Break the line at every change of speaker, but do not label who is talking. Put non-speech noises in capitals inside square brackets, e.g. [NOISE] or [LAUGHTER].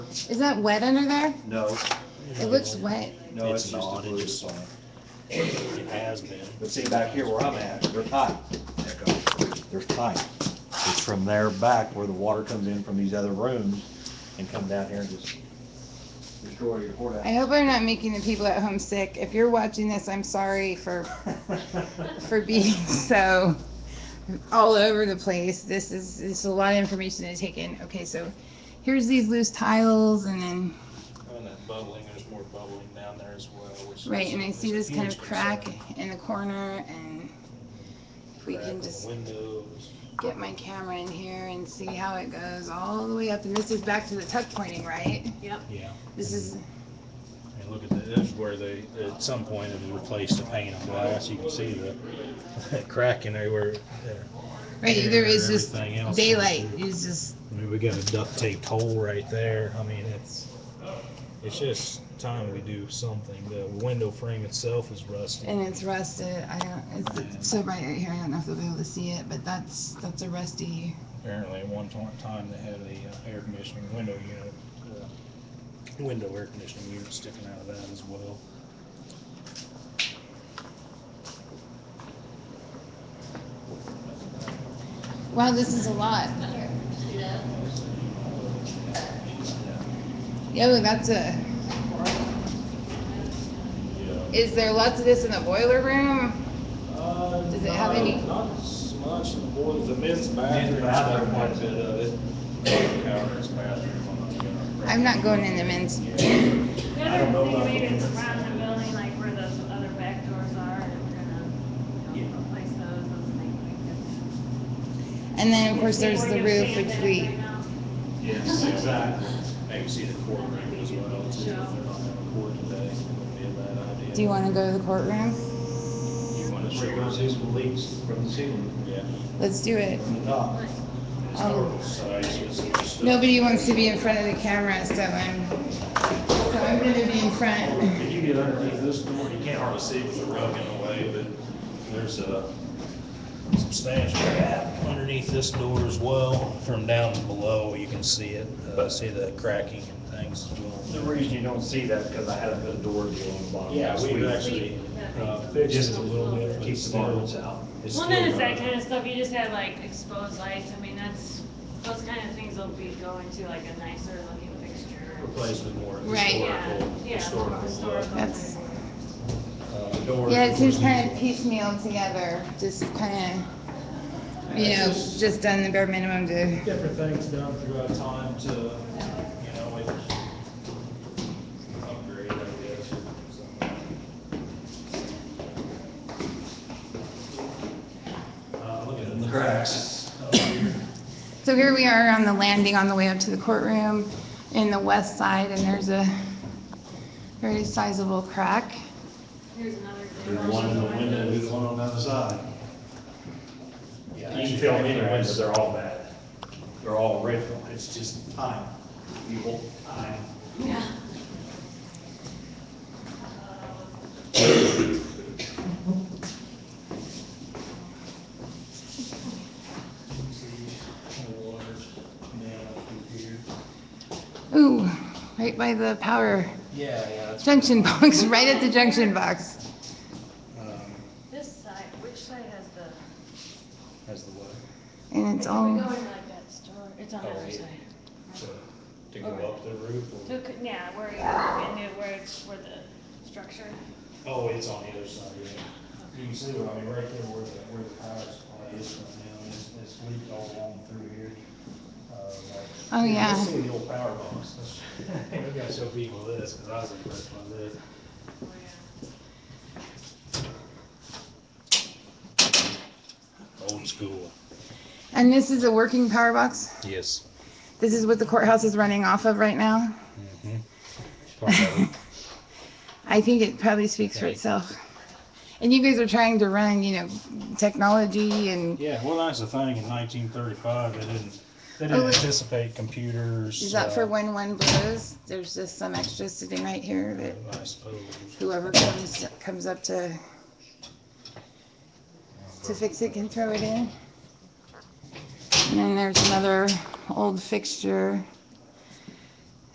Is that wet under there?
No,
It looks wet.
no, it's
It's
just a
not, it
blue
just-
sign.
It has been.
But see, back here where I'm at, they're tight. They're tight. It's from there back where the water comes in from these other rooms and come down here and just destroy your
I
courthouse.
hope I'm not making the people at home sick. If you're watching this, I'm sorry [LAUGHS] for, for being so all over the place. This is, this is a lot of information to take in. Okay, so here's these loose tiles and then,
Oh, And that bubbling, there's more bubbling down there as well, which.
right,
is-
and I
is
see
a
this kind
huge
of crack
concern.
in the corner and if we
Crack in
can
the
just
Windows.
get my camera in here and see how it goes all the way up. And this is back to the tuck pointing, right?
Yeah,
This is,
and look at the, this is where they, at some point, it replaced the pane of glass. You can see the [LAUGHS] that crack in there where, there.
right, there is
Everything
just
else.
daylight. It's just,
I mean, we got a duct taped hole right there. I mean, it's, it's just time we do something. The window frame itself is rusty.
and it's rusted. I don't, it's so bright right here. I don't know if they'll be able to see it, but that's, that's a rusty.
Apparently, at one ti- time, they had a uh, air conditioning window unit, uh, window air conditioning unit sticking out of that as well.
Wow, this is a lot. Yo, that's a,
Yeah.
is there lots of this in the boiler room? Does it have any-
Not as much in the boiler, the men's
bathroom's
bathroom's
got
got
bathroom.
quite a bit of it. Counter's bathroom.
I'm not going in the men's.
I
The
don't know
other thing
about
maybe
the
is
difference.
around the building, like where those other back doors are, and we're gonna, you know, replace those, those things.
And then, of course, there's the roof, which we,
Yes, exactly. Maybe see the courtroom as well, too, if they're not having court today, it wouldn't be a bad idea.
do you want to go to the courtroom?
You wanna
We're
show
gonna
us?
see some leaks from the ceiling,
Yeah.
Let's do it.
from the top.
Um,
Sizes and stuff.
Nobody wants to be in front of the camera, so I'm, so I'm gonna be in front.
If you get underneath this door, you can't hardly see with the rug in the way, but there's a substantial gap underneath this door as well. From down below, you can see it, uh, see the cracking and things as
The
well.
reason you don't see that, because I had a good door deal on the bottom.
Yeah, we actually uh, fixed it a little bit. but
Keep
it's
the
still-
marbles out.
it's
Well, none
still
of that
not-
kind of stuff, you just have like exposed lights, I mean, that's, those kind of things will be going to like a nicer looking fixture.
Replaced with more
Right.
Yeah,
historical,
yeah,
historical.
more
look.
historical.
That's-
Uh, the doors,
Yeah,
of
it seems
course,
kind of piecemeal together, just kind of, you know, just done the bare minimum to,
different things done throughout time to, you know, it upgrade, I guess. Uh, look at the cracks. up here.
so here we are on the landing on the way up to the courtroom in the west side, and there's a very sizable crack.
Here's another.
There's one in the window, there's one on the other side.
Yeah,
You can tell me the windows, they're all bad. They're all original, it's just time, evil time.
Yeah. Uh,
See, the water's down through here.
Ooh, right by the power
Yeah, yeah, that's.
junction [LAUGHS] box, right at the junction box.
um,
This side, which side has the?
Has the what?
And it's all,
We go in like that store, it's on the
Oh,
other
yeah.
side.
To to go up the roof or?
So, it could- yeah, where you look into where it's, where the structure.
Oh, it's on the other side, yeah. You can see, what I mean, right there where the, where the power supply is right now, and it's, it's leaked all along through here. Uh, like-
Oh, yeah.
You can see the old power box. [LAUGHS] That's- We gotta show people this, cause I was impressed by this. Old school.
and this is a working power box.
Yes.
This is what the courthouse is running off of right now. I think it probably speaks for
Right.
itself. And you guys are trying to run, you know, technology and
Yeah, well, that's the thing, in nineteen thirty-five, they didn't, they didn't
Oh, wait.
anticipate computers.
is that for
uh,
when one blows? There's just some extra sitting right here that
I suppose.
whoever comes comes up to to fix it can throw it in. And then there's another old fixture.